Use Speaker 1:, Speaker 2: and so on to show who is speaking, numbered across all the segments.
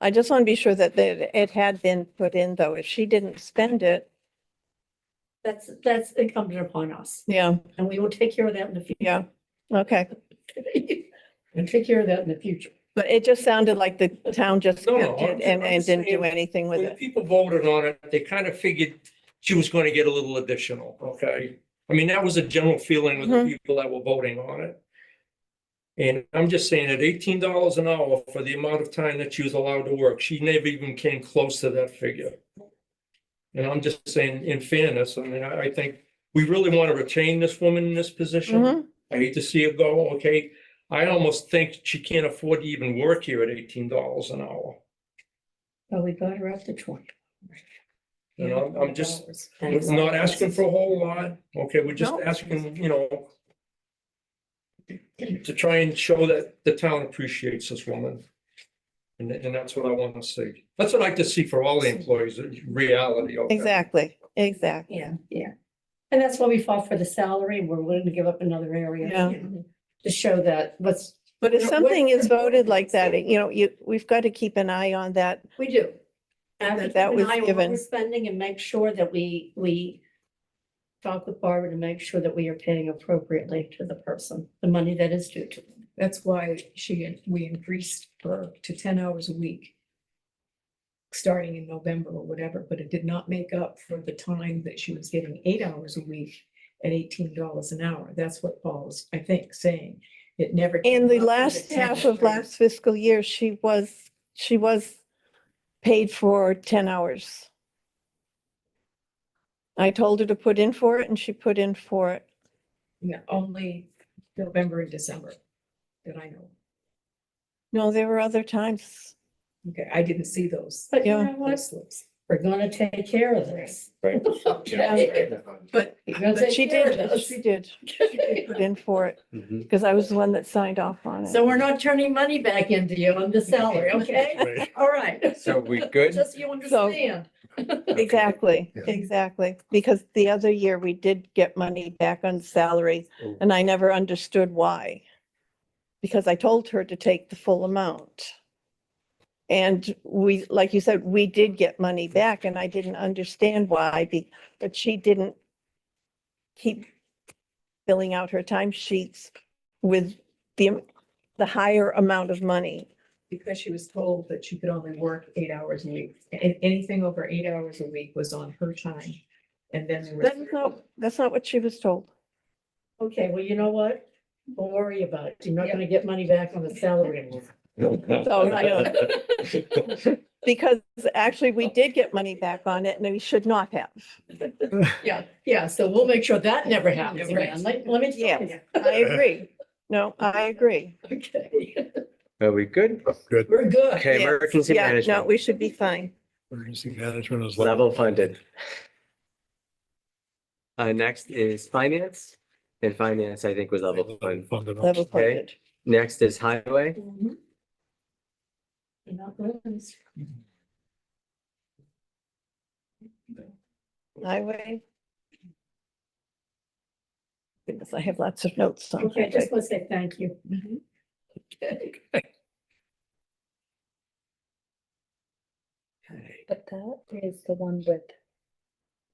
Speaker 1: I just want to be sure that that it had been put in though. If she didn't spend it,
Speaker 2: That's, that's incumbent upon us,
Speaker 1: yeah,
Speaker 2: and we will take care of that in the
Speaker 1: yeah, okay.
Speaker 2: future. We'll take care of that in the future.
Speaker 1: But it just sounded like the town just
Speaker 3: No, no,
Speaker 1: kept
Speaker 3: I'm
Speaker 1: it
Speaker 3: ju-
Speaker 1: and,
Speaker 3: I'm
Speaker 1: and didn't do
Speaker 3: saying
Speaker 1: anything with
Speaker 3: When
Speaker 1: it.
Speaker 3: people voted on it, they kind of figured she was going to get a little additional, okay? I mean, that was a general feeling with the
Speaker 1: Mhm.
Speaker 3: people that were voting on it. And I'm just saying at eighteen dollars an hour for the amount of time that she was allowed to work, she never even came close to that figure. And I'm just saying in fairness, I mean, I, I think we really want to retain this woman in this position.
Speaker 1: Mhm.
Speaker 3: I hate to see her go, okay? I almost think she can't afford to even work here at eighteen dollars an hour.
Speaker 2: Well, we got her up to twenty.
Speaker 3: You know, I'm just-
Speaker 2: And-
Speaker 3: We're not asking for a whole lot, okay, we're just
Speaker 1: No.
Speaker 3: asking, you know. To try and show that the town appreciates this woman. And, and that's what I want to see, that's what I'd like to see for all the employees, in reality, okay?
Speaker 1: Exactly, exactly.
Speaker 2: Yeah, yeah. And that's why we fought for the salary, we're willing to give up another area.
Speaker 1: Yeah.
Speaker 2: you know, To show that what's,
Speaker 1: But if
Speaker 2: Now, what-
Speaker 1: something is voted like that, it- you know, you, we've got to keep an eye on that.
Speaker 2: we do. And I
Speaker 1: That-
Speaker 2: have to
Speaker 1: that
Speaker 2: keep an
Speaker 1: was
Speaker 2: eye on what
Speaker 1: given.
Speaker 2: We're spending and make sure that we, we talk with Barbara to make sure that we are paying appropriately to the person, the money that is due to. them.
Speaker 4: That's why she, we increased her to ten hours a week. Starting in November or whatever, but it did not make up for the time that she was getting eight hours a week at eighteen dollars an hour. That's what Paul's, I think, saying. It never. came
Speaker 1: And the
Speaker 4: up for
Speaker 1: last
Speaker 4: 10
Speaker 1: half of
Speaker 4: hours.
Speaker 1: last fiscal year, she was, she was paid for ten hours. I told her to put in for it and she put in for it.
Speaker 4: No, Only November and December that I know.
Speaker 1: No, there were other times.
Speaker 4: Okay, I didn't see those.
Speaker 2: But you
Speaker 1: Yeah.
Speaker 2: know what?
Speaker 4: slips.
Speaker 2: We're gonna take care of this.
Speaker 3: Right.
Speaker 2: Okay.
Speaker 4: But
Speaker 2: We're gonna
Speaker 1: But
Speaker 2: take
Speaker 1: she
Speaker 2: care of
Speaker 1: did,
Speaker 2: this.
Speaker 1: she did. She did put in for it because I was the one that signed off on it.
Speaker 2: So we're not turning money back into you on the salary, okay? All right.
Speaker 5: So we good?
Speaker 2: Just so you understand.
Speaker 1: Exactly,
Speaker 5: Yeah.
Speaker 1: exactly. Because the other year we did get money back on salary
Speaker 5: Oh.
Speaker 1: and I never understood why. Because I told her to take the full amount. And we, like you said, we did get money back and I didn't understand why, be- but she didn't keep filling out her time sheets with the, am- the higher amount of money.
Speaker 4: because she was told that she could only work eight hours a week. And anything over eight hours a week was on her time. And then there was.
Speaker 1: That's not, that's not what she was told.
Speaker 2: Okay, well, you know what? Don't worry about it. You're not gonna get money back on the salary. anymore.
Speaker 1: So, you know, Because actually, we did get money back on it and we should not have.
Speaker 2: Yeah, yeah, so we'll make sure that never happens
Speaker 4: Right.
Speaker 2: again. Let, let me tell
Speaker 1: Yes.
Speaker 2: you.
Speaker 1: I agree. No, I agree.
Speaker 2: Okay,
Speaker 5: Are we good?
Speaker 6: Good.
Speaker 2: we're good.
Speaker 5: Okay,
Speaker 1: Yes.
Speaker 5: emergency
Speaker 1: Yeah, No,
Speaker 5: management,
Speaker 1: we should be fine.
Speaker 6: Emergency management is level.
Speaker 5: level funded. Uh, next is finance, and finance, I think, was level funded.
Speaker 6: funded.
Speaker 1: Level funded.
Speaker 5: Next is highway,
Speaker 2: Mhm. You're not gonna lose.
Speaker 1: Highway. Goodness, I have lots of notes on
Speaker 2: Okay, I
Speaker 1: highway.
Speaker 2: just want to say thank you.
Speaker 4: Mhm.
Speaker 2: Okay.
Speaker 7: But that is the one with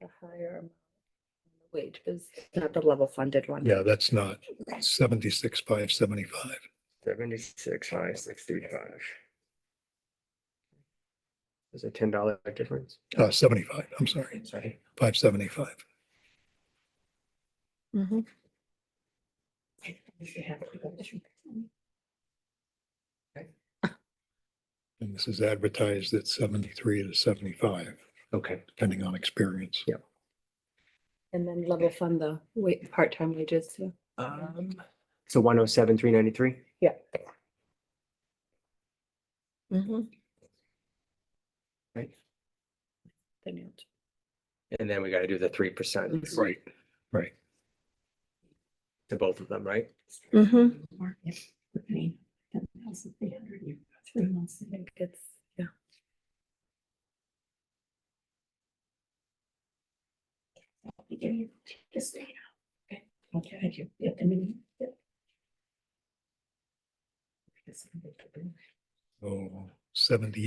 Speaker 7: the higher amount of wage, is not the level funded one.
Speaker 6: Yeah, that's not seventy-six, five seventy-five.
Speaker 5: seventy-six, five, six, three, five. There's a ten dollar difference.
Speaker 6: Uh, seventy-five, I'm sorry,
Speaker 5: Sorry.
Speaker 6: five seventy-five.
Speaker 1: Mhm.
Speaker 2: If you have to go to-
Speaker 6: And this is advertised at seventy-three to seventy-five,
Speaker 5: Okay,
Speaker 6: depending on experience.
Speaker 7: And then level fund the wait, part-time wages too.
Speaker 5: um, so one oh seven, three ninety-three?
Speaker 7: Yeah.
Speaker 1: Mhm.
Speaker 5: Right,
Speaker 7: the new ones.
Speaker 5: and then we gotta do the three percent. Right.
Speaker 6: right.
Speaker 5: To both of them, right?
Speaker 1: Mhm.
Speaker 2: Mark, yeah, we're paying 10,300, you've got three months to make.
Speaker 7: It's, yeah.
Speaker 2: We give you this data. Okay, okay, thank you. Yeah, I mean, yeah.
Speaker 6: So seventy